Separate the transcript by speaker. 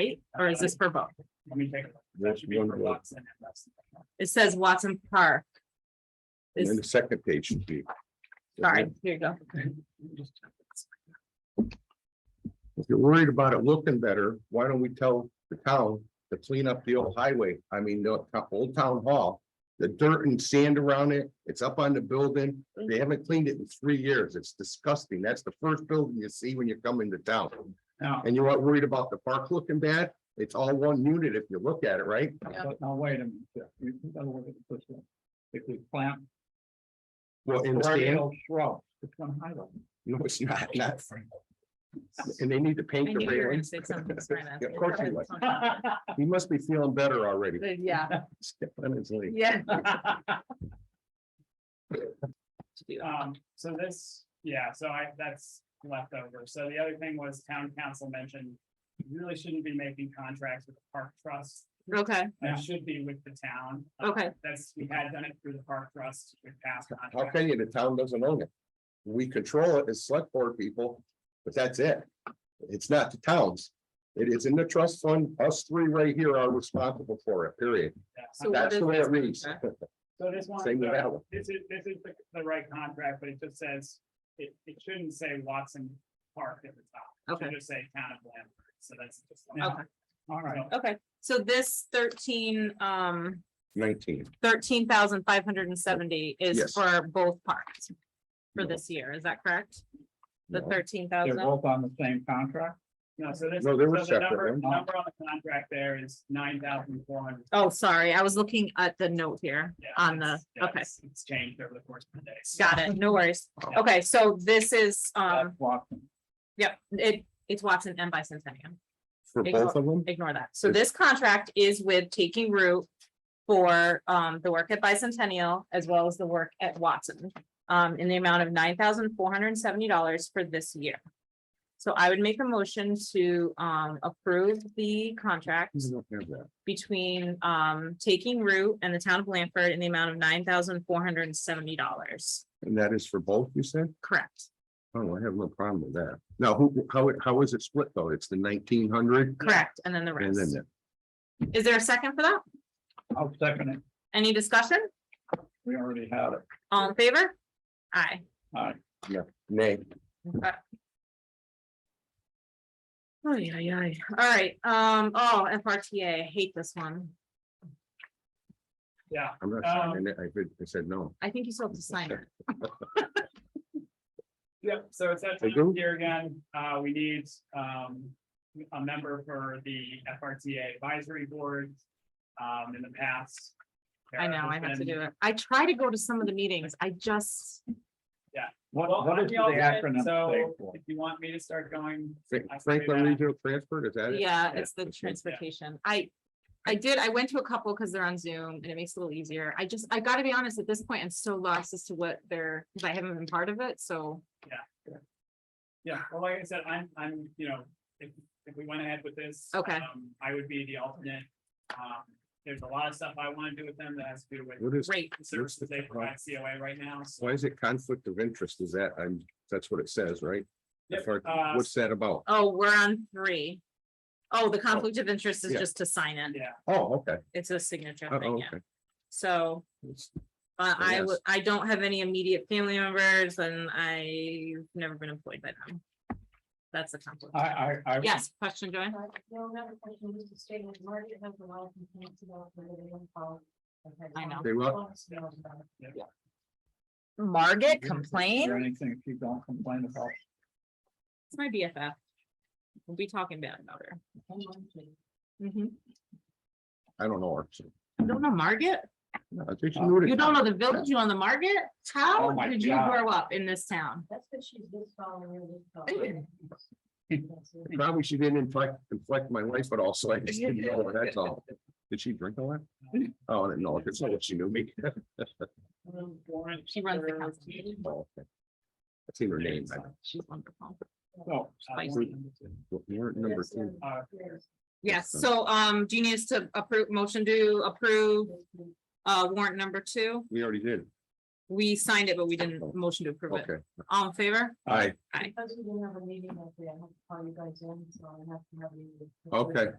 Speaker 1: right? Or is this for both?
Speaker 2: Let me take a look. That
Speaker 3: That's
Speaker 2: should be for
Speaker 3: one word.
Speaker 2: Watson and Weston.
Speaker 1: It says Watson Park.
Speaker 3: And then
Speaker 1: Is,
Speaker 3: the second page should be.
Speaker 1: sorry, here you go.
Speaker 2: Just-
Speaker 3: If you're worried about it looking better, why don't we tell the town to clean up the old highway, I mean, the to- old town hall? The dirt and sand around it, it's up on the building, they
Speaker 1: Mm.
Speaker 3: haven't cleaned it in three years, it's disgusting, that's the first building you see when you come into town.
Speaker 2: Now,
Speaker 3: And you're not worried about the park looking bad, it's all one unit if you look at it, right?
Speaker 1: Yeah.
Speaker 2: but now wait a minute. You gotta look at the first one. If we plant.
Speaker 3: Well, in sand,
Speaker 2: perennial Shrubs, it's gonna hide them.
Speaker 3: no, it's not, not, and they need to
Speaker 1: I
Speaker 3: paint the
Speaker 1: knew you were gonna
Speaker 3: railing,
Speaker 1: say something. sorry,
Speaker 3: Yeah, of course you would.
Speaker 1: Matt.
Speaker 3: he must be feeling better already.
Speaker 1: Yeah,
Speaker 3: Honestly.
Speaker 1: yeah.
Speaker 2: Um, so this, yeah, so I, that's left over. So the other thing was town council mentioned. you Really shouldn't be making contracts with the park trust.
Speaker 1: Okay,
Speaker 2: That should be with the town.
Speaker 1: okay.
Speaker 2: That's, we had done it through the park trust with past
Speaker 3: How
Speaker 2: contracts.
Speaker 3: can you? The town doesn't own it. We control it as select board people, but that's it. It's not the towns. It is in the trust fund. Us three right here are responsible for it, period.
Speaker 2: Yeah.
Speaker 1: So what
Speaker 3: That's
Speaker 1: is
Speaker 3: the way
Speaker 1: this
Speaker 3: it reads.
Speaker 1: contract?
Speaker 2: So this one, uh,
Speaker 3: Same with that one.
Speaker 2: this is, this is the, the right contract, but it just says, it, it shouldn't say Watson Park at the top. It
Speaker 1: Okay,
Speaker 2: should just say town of Lambert, so that's just.
Speaker 1: okay,
Speaker 2: All right.
Speaker 1: okay. So this thirteen, um,
Speaker 3: Nineteen.
Speaker 1: thirteen thousand five hundred and seventy is
Speaker 3: Yes.
Speaker 1: for both parks. For
Speaker 3: No.
Speaker 1: this year, is that correct? The
Speaker 3: No.
Speaker 1: thirteen thousand?
Speaker 2: both on the same contract? No, so this.
Speaker 3: No, they were
Speaker 2: so the
Speaker 3: separate,
Speaker 2: number-
Speaker 3: weren't they?
Speaker 2: Number on the contract there is nine thousand four hundred.
Speaker 1: Oh, sorry, I was looking at the note here on the, okay,
Speaker 2: It's changed over the course of the day.
Speaker 1: got it, no worries. Okay, so this is, um,
Speaker 2: That's Watson.
Speaker 1: yep, it, it's Watson and Bicentennial.
Speaker 3: For
Speaker 1: Ignore-
Speaker 3: both of them?
Speaker 1: ignore that. So this contract is with Taking Root for um the work at Bicentennial as well as the work at Watson. Um, in the amount of nine thousand four hundred and seventy dollars for this year. So I would make a motion to um approve the contract
Speaker 3: You don't have that.
Speaker 1: between um Taking Root and the town of Blanford in the amount of nine thousand four hundred and seventy dollars.
Speaker 3: And that is for both, you said?
Speaker 1: Correct,
Speaker 3: Oh, I have no problem with that. Now, who, how, it- how is it split though? It's the nineteen hundred?
Speaker 1: correct. And then the
Speaker 3: And then
Speaker 1: rest.
Speaker 3: that.
Speaker 1: Is there a second for that?
Speaker 2: I'll second it.
Speaker 1: Any discussion?
Speaker 2: We already had it.
Speaker 1: All in favor? Aye.
Speaker 3: Nay.
Speaker 1: Oh, yeah, yeah, all right, um, oh, FRTA, I hate this one.
Speaker 2: Yeah,
Speaker 3: I'm not
Speaker 1: Um,
Speaker 3: signing it. I did- I said no.
Speaker 1: I think you still have to sign it.
Speaker 2: Yep, so it's that
Speaker 3: They
Speaker 2: time of
Speaker 3: do?
Speaker 2: year again, uh, we need, um, a member for the FRTA advisory board. Um, in the past.
Speaker 1: I know, I have to do it. I try to go to some of the meetings. I just,
Speaker 2: What,
Speaker 4: what is the acronym stand
Speaker 2: So
Speaker 4: for?
Speaker 2: if you want me to start going,
Speaker 3: Fra-
Speaker 2: I see
Speaker 3: Franklin
Speaker 2: that.
Speaker 3: Regional Transfer, is that it?
Speaker 1: yeah, it's the
Speaker 3: okay.
Speaker 1: transportation. I, I did, I went to a couple because they're on Zoom and it makes it a little easier. I just, I gotta be honest, at this point, I'm so lost as to what they're, because I haven't been part of it, so.
Speaker 2: yeah, well, like I said, I'm, I'm, you know, if, if we went ahead with this.
Speaker 1: Okay.
Speaker 2: um, I would be the alternate. Um, there's a lot of stuff I want to do with them that has to do with
Speaker 3: What is,
Speaker 1: Great,
Speaker 2: the services they provide COA right now, so.
Speaker 3: why is it conflict of interest? Is that, I'm, that's what it says, right?
Speaker 2: Yep,
Speaker 3: Or
Speaker 2: uh,
Speaker 3: What's that about?
Speaker 1: oh, we're on three. Oh, the conflict of interest is
Speaker 3: Yeah.
Speaker 1: just to sign it.
Speaker 2: Yeah,
Speaker 3: Oh, okay.
Speaker 1: It's a signature
Speaker 3: Oh,
Speaker 1: thing,
Speaker 3: okay.
Speaker 1: yeah. So Uh,
Speaker 3: So
Speaker 1: I
Speaker 3: yes.
Speaker 1: would, I don't have any immediate family members and I've never been employed by them. That's a
Speaker 2: uh,
Speaker 1: conflict.
Speaker 4: I, I, I,
Speaker 1: Yes, question, Joanne?
Speaker 5: Uh, No, another question, just to state, that Margaret has a lot of complaints about the living room policy.
Speaker 1: I know.
Speaker 3: They what?
Speaker 1: Margaret
Speaker 4: is
Speaker 1: complained?
Speaker 4: there anything if you don't complain about?
Speaker 1: It's my BFF. We'll be talking bad about her. Mhm.
Speaker 3: I don't know. actually.
Speaker 1: You don't know Margaret?
Speaker 3: I think she knew it.
Speaker 1: Uh, You don't know the village, you don't know Margaret? How
Speaker 4: Oh my
Speaker 1: did you
Speaker 4: God.
Speaker 1: grow up in this town?
Speaker 5: That's what she's just following her this following. That's it.
Speaker 3: Probably she didn't inflect, inflect my life at all, so I just didn't know, her, that's all. Did she drink a lot? Oh, I didn't know, it's not what she knew me.
Speaker 2: um, warrant
Speaker 1: She runs the
Speaker 2: for-
Speaker 1: council meeting.
Speaker 3: Oh, okay. I've seen her name. I-
Speaker 1: She's wonderful.
Speaker 4: Oh,
Speaker 2: uh,
Speaker 1: Spicy.
Speaker 2: warrant number two.
Speaker 3: Warrant number
Speaker 5: That's,
Speaker 3: two.
Speaker 5: uh,
Speaker 2: Uh,
Speaker 5: yes,
Speaker 1: Yes, so um, do you need us to approve, motion to approve
Speaker 5: yes, yes.
Speaker 1: uh warrant number two?
Speaker 3: We already did.
Speaker 1: We signed it, but we didn't motion to approve it.
Speaker 3: Okay,
Speaker 1: All in favor?
Speaker 3: all right,
Speaker 5: Because we didn't have a meeting that day, I have to call you guys in, so I have to have you.
Speaker 3: Okay.